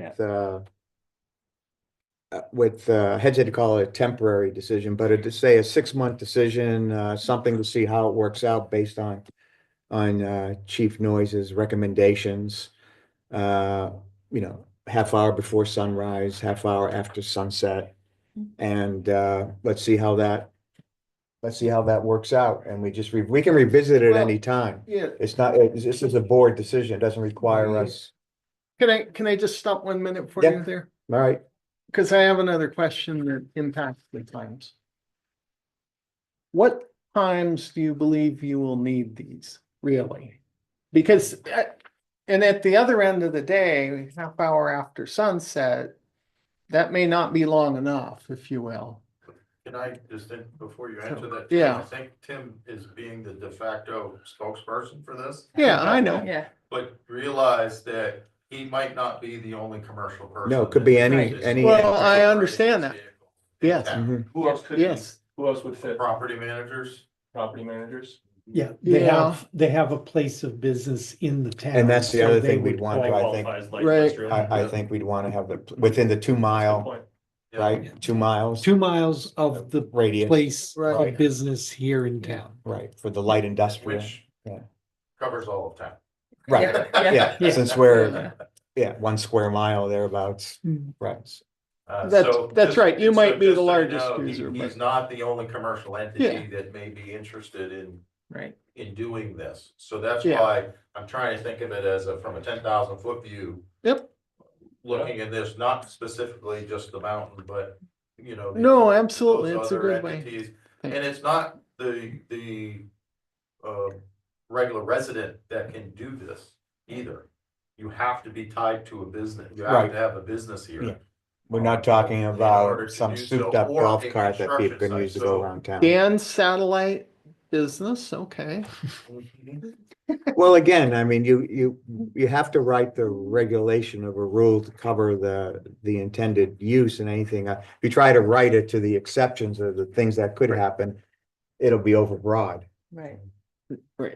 with, uh, uh, with, uh, heads had to call it a temporary decision, but it to say a six-month decision, uh, something to see how it works out based on, on, uh, Chief Noise's recommendations. Uh, you know, half hour before sunrise, half hour after sunset. And, uh, let's see how that, let's see how that works out. And we just, re- we can revisit it Well- any time. Yeah, It's not, it- this is a board decision. It doesn't require Yeah. us, can I, can I just stop one minute for Yeah. you there? all right? Because I have another question that impacts the times. What times do you believe you will need these, really? Because, uh, and at the other end of the day, half hour after sunset, that may not be long enough, if you will. Can I just, in- before you answer that? Tim, Yeah. I think Tim is being the de facto spokesperson for this. Yeah, I know. Yeah, But realize that he might not be the only commercial person. No, it could be that any- uses any- the Well, vehicle I for understand that. his vehicle in Yes. town. Mhm. Who else could? be- Yes, Who else would fit? Property managers, Property managers? Yeah, they Yeah. have, they have a place of business in the town. And that's the so other they thing we'd would want, qualify. I think. Qualifies light Right. industrial. I, I think we'd want to have the, within the two mile, Point. yeah. right, two miles Two miles of the radius, place Right. of business here in town. right, for the light industrial. Which Yeah. covers all of town. Right, yeah. yeah, Yeah. since we're, yeah, one square mile thereabouts, Hmm. right. Uh, That's- so that's just- right. You so might be the just so you largest know, he- user, He's but- not the only commercial entity that may be interested in right. in doing this. So that's Yeah. why I'm trying to think of it as a, from a ten thousand foot view. Yep. Looking at this, not specifically just the mountain, but, you know. the- no, those absolutely, it's a other good way. entities. And Thanks. it's not the, the, uh, regular resident that can do this either. You have to be tied to a business. You have Right. to have a business here. Yeah. We're not talking about some souped up golf cart that people can use to go around town. Dan satellite business, okay. Well, again, I mean, you, you, you have to write the regulation of a rule to cover the, the intended use and anything. Uh, If you try to write it to the exceptions or the things that could happen, it'll be overbroad. Right.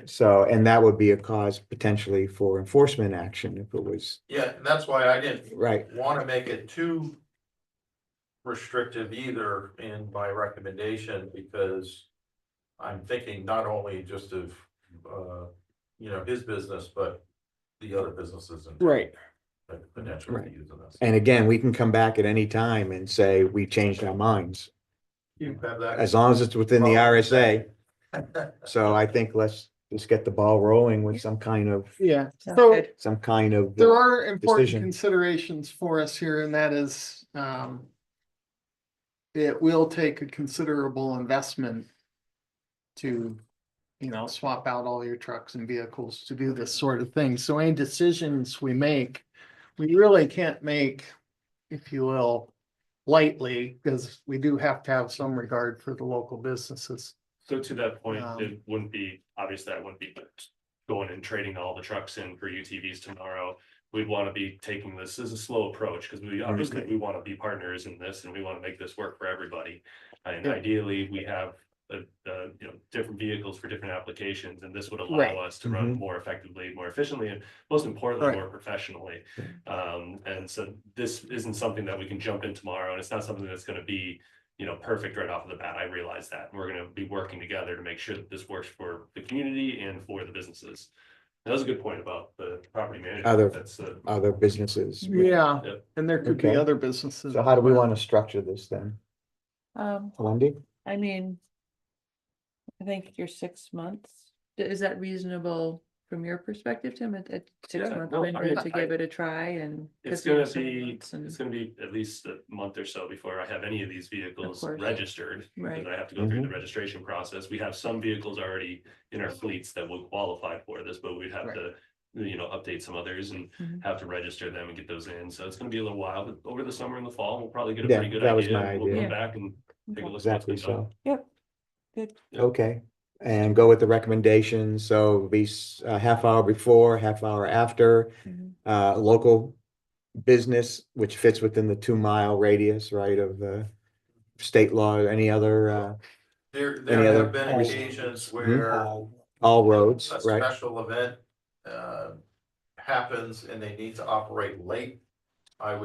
So, and that would be a cause potentially for enforcement action if it was, Yeah, and that's why I didn't right, want to make it too restrictive either in my recommendation because I'm thinking not only just of, uh, you know, his business, but the other businesses and Right. that potentially Right. using this. and again, we can come back at any time and say, we changed our minds, You have that? as long as it's within the Well- RSA. So I think let's just get the ball rolling with some kind of, Yeah, Sounds so good. some kind of. There are important decision. considerations for us here, and that is, um. It will take a considerable investment. To, you know, swap out all your trucks and vehicles to do this sort of thing, so any decisions we make. We really can't make, if you will, lightly, because we do have to have some regard for the local businesses. So to that point, Um, it wouldn't be, obviously that wouldn't be going and trading all the trucks in for UTVs tomorrow. We'd want to be taking this as a slow approach because we obviously, Okay. we want to be partners in this and we want to make this work for everybody. And Yeah. ideally, we have, uh, uh, you know, different vehicles for different applications and this would Right. Mm-hmm. allow us to run more effectively, more efficiently, and most importantly, Right. more professionally. Um, and so this isn't something that we can jump in tomorrow and it's not something that's going to be you know, perfect right off the bat. I realize that. and We're gonna be working together to make sure that this works for the community and for the businesses. That was a good point about the property manager. Other- That's uh, Other businesses. Yeah, Yeah. and there could be Okay. other businesses. So how do we as well. want to structure this then? Um, Wendy? I mean. I think your six months, D- is that reasonable from your perspective, Tim, at, at six Yeah, month no, I window mean, to I- give it a try and? It's 'cause we have gonna seven be- months and- it's gonna be at least a month or so before I have any of these vehicles course. registered. Right. Because I have to go through the Mm-hmm. registration process. We have some vehicles already in our fleets that will qualify for this, but we'd have Right. to. You know, update some others and Mhm. have to register them and get those in. So it's gonna be a little while, but over the summer and the fall, we'll probably get a Yeah, pretty good that was idea. my We'll idea. come back and take a Okay. look. at what's Exactly been so. done. Yep, good, Okay, and go with the recommendations, so be s- a half hour before, half hour after, Mhm. uh, local business, which fits within the two mile radius, right, of the state law, any other, uh, There, Any there other- Hmm? have been occasions where all roads, a right? Special event, uh, happens and they need to operate late. I would